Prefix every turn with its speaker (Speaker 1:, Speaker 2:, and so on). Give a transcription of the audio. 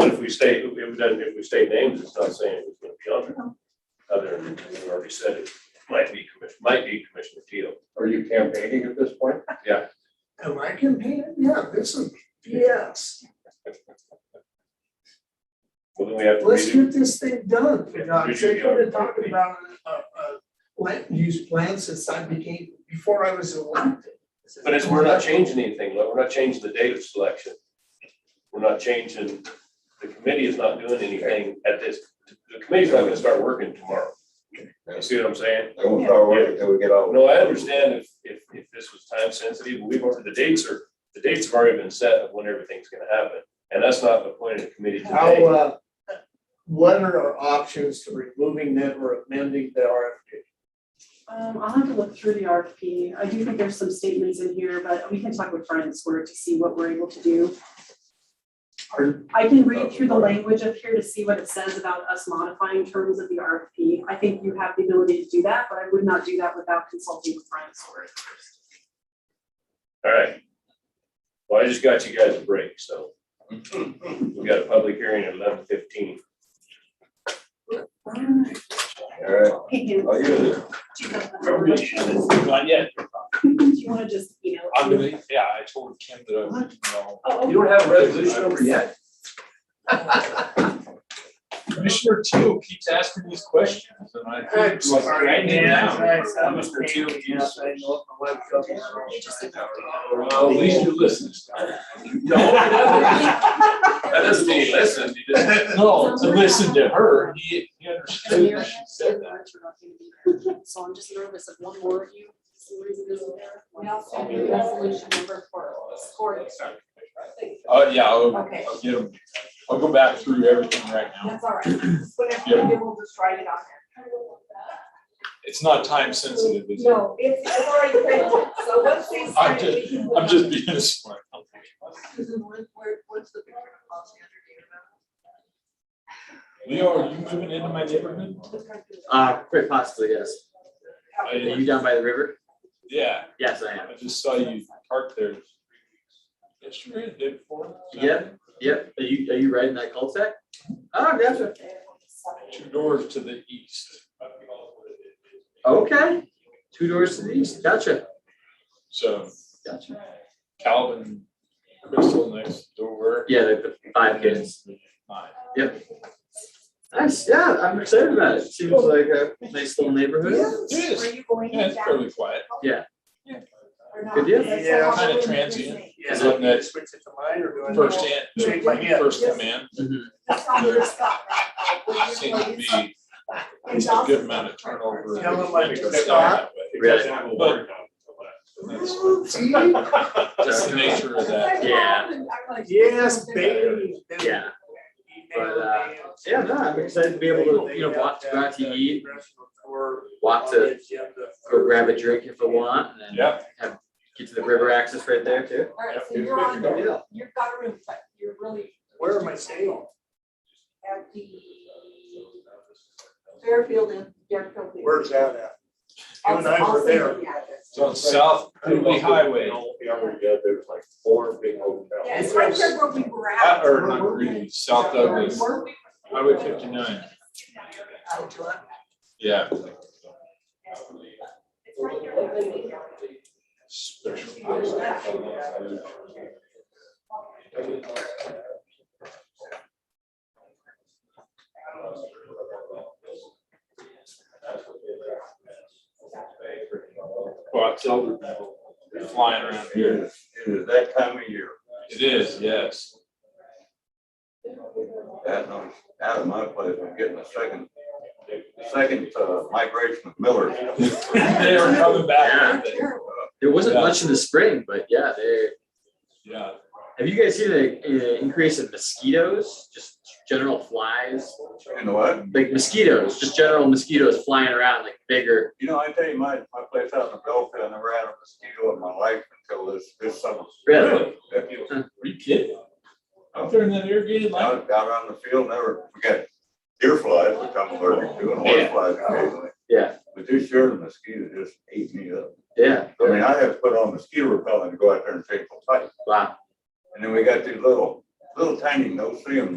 Speaker 1: if we state, if we don't- if we state names, it's not saying it's gonna be on there. Other than, we already said it, might be commission, might be Commissioner Teal.
Speaker 2: Are you campaigning at this point?
Speaker 3: Am I competing? Yeah, this is, yes,
Speaker 1: Well, then we have to
Speaker 3: let's
Speaker 1: redo,
Speaker 3: get this thing done, for God's sake, we've been talking about uh uh land use plan since I became, before I was elected.
Speaker 1: but it's, we're not changing anything, like, we're not changing the date of selection. We're not changing, the committee is not doing anything at this, the committee's not gonna start working tomorrow. You see what I'm saying?
Speaker 2: I won't start working until we get all.
Speaker 1: No, I understand if, if, if this was time sensitive, we've, already- the dates are, the dates have already been set of when everything's gonna happen. And that's not the point of the committee
Speaker 3: How,
Speaker 1: today.
Speaker 3: uh, what are our options to removing them or amending the RFP?
Speaker 4: Um, I'll have to look through the RFP. I do think there's some statements in here, but we can talk with Brian Swerve to see what we're able to do.
Speaker 3: Pardon?
Speaker 4: I can read through the language up here to see what it says about us modifying terms of the RFP. I think you have the ability to do that, but I would not do that without consulting with Brian Swerve first.
Speaker 1: All right. Well, I just got you guys a break, so we got a public hearing at eleven fifteen.
Speaker 2: All right, I'll use it.
Speaker 1: Not yet.
Speaker 4: Do you wanna just, you know?
Speaker 5: I'm gonna, yeah, I told Kim that I would, no.
Speaker 4: Oh,
Speaker 1: You don't have a resolution over yet?
Speaker 5: Commissioner Teal keeps asking these questions and I.
Speaker 3: I'm sorry,
Speaker 5: Right now,
Speaker 3: man.
Speaker 5: Mr. Teal keeps.
Speaker 3: I know the web company.
Speaker 5: Well, at least you listen.
Speaker 1: No. That doesn't mean he listened, he just,
Speaker 5: No, to listen to her, he, he understood that she said that.
Speaker 4: that. So I'm just nervous of one more of you, some reason isn't there.
Speaker 6: We also need resolution number four, score.
Speaker 5: Uh, yeah, I'll,
Speaker 6: Okay.
Speaker 5: I'll get him, I'll go back through everything right now.
Speaker 6: That's all right. Whatever, we do, we'll just write it on there.
Speaker 5: It's not time sensitive, is it?
Speaker 6: No, it's, it's already printed, so once they sign it, we can.
Speaker 5: I'm just being smart.
Speaker 6: Susan, where, where- what's the picture of policy under, do you remember?
Speaker 5: Leo, are you moving into my neighborhood?
Speaker 7: Uh, quite possibly, yes.
Speaker 5: I-
Speaker 7: Are you down by the river?
Speaker 5: Yeah,
Speaker 7: Yes, I am.
Speaker 5: I just saw you parked there. Yesterday, the day before.
Speaker 7: Yeah. Yep. Are you, are you riding that cul-de-sac? Oh, gotcha.
Speaker 5: Two doors to the east.
Speaker 7: Oh. Okay. Two doors to the east. Gotcha.
Speaker 5: So
Speaker 7: Gotcha.
Speaker 5: Calvin, Crystal next door.
Speaker 7: Yeah, the, the five kids. Nice. Yeah, I'm excited about it. Seems like a nice little neighborhood.
Speaker 5: It is,
Speaker 6: Were you going
Speaker 5: yeah, it's
Speaker 6: down
Speaker 5: fairly quiet.
Speaker 7: Yeah.
Speaker 6: or not?
Speaker 7: Good deal.
Speaker 6: That's
Speaker 3: Yeah.
Speaker 6: all
Speaker 5: Kinda
Speaker 6: we're
Speaker 5: transient.
Speaker 6: missing.
Speaker 5: Is that next?
Speaker 3: Switch it to mine or do I?
Speaker 5: First in,
Speaker 3: Shake my hand.
Speaker 5: first command,
Speaker 7: Mhm.
Speaker 6: That's all we're stuck on.
Speaker 5: seems to be
Speaker 6: And
Speaker 5: a good
Speaker 6: Dawson's
Speaker 5: amount of turnover.
Speaker 3: Tell them like
Speaker 5: It's
Speaker 3: it's
Speaker 5: down
Speaker 3: not.
Speaker 5: that way.
Speaker 7: Really?
Speaker 5: But that's-
Speaker 3: Ooh,
Speaker 5: That's the nature of that.
Speaker 6: That's what
Speaker 7: Yeah.
Speaker 6: happened. I'm like-
Speaker 3: gee. Yes, baby.
Speaker 7: Yeah. But, uh, Yeah, no, I'm excited to be able to, you know, watch, go out to eat, walk to, go grab a drink if I want, and then
Speaker 5: Yeah,
Speaker 7: get to the river access right there too.
Speaker 6: All right, so
Speaker 5: Yeah.
Speaker 6: you're on,
Speaker 7: Good
Speaker 6: the-
Speaker 7: deal.
Speaker 6: you've got a room, but you're really
Speaker 3: Where am I staying?
Speaker 6: at the Fairfield and Fairfield.
Speaker 3: Where's that at? You and I
Speaker 6: I'll- I'll
Speaker 3: were
Speaker 6: send
Speaker 3: there.
Speaker 6: you the address.
Speaker 5: it's on South Cooley Highway,
Speaker 1: Yeah, there's like four big hotels.
Speaker 6: Yeah, it's right there where we were
Speaker 5: Uh,
Speaker 6: at.
Speaker 5: or not really, South Douglas,
Speaker 6: Where we were-
Speaker 5: Highway fifty-nine,
Speaker 6: Oh, do I?
Speaker 5: yeah.
Speaker 6: It's right there.
Speaker 5: Special. place. Well, it's over now, uh, They're flying around here.
Speaker 2: It is that time of year.
Speaker 5: It is, yes.
Speaker 2: That, and I'm out of my place, I'm getting a second, second uh, migration of Millers.
Speaker 5: They are coming back, with it.
Speaker 7: There wasn't
Speaker 5: Yeah.
Speaker 7: much in the spring, but yeah, there,
Speaker 5: yeah.
Speaker 7: Have you guys seen the uh, increase in mosquitoes? Just general flies,
Speaker 2: You know what?
Speaker 7: like mosquitoes, just general mosquitoes flying around, like bigger.
Speaker 2: You know, I tell you, my, my place out in the Belfield, I never had a mosquito in my life until this, this summer.
Speaker 7: Really?
Speaker 5: Are you kidding?
Speaker 2: Out,
Speaker 5: They're in that irrigated line.
Speaker 2: out on the field, never, we got deer flies, which I'm allergic to, and horse
Speaker 7: Yeah.
Speaker 2: flies occasionally.
Speaker 7: Yeah,
Speaker 2: But this year, the mosquito just ate me up.
Speaker 7: yeah.
Speaker 2: I mean, I had to put on mosquito repellent to go out there and take the fight.
Speaker 7: Wow.
Speaker 2: And then we got these little, little tiny, no see 'em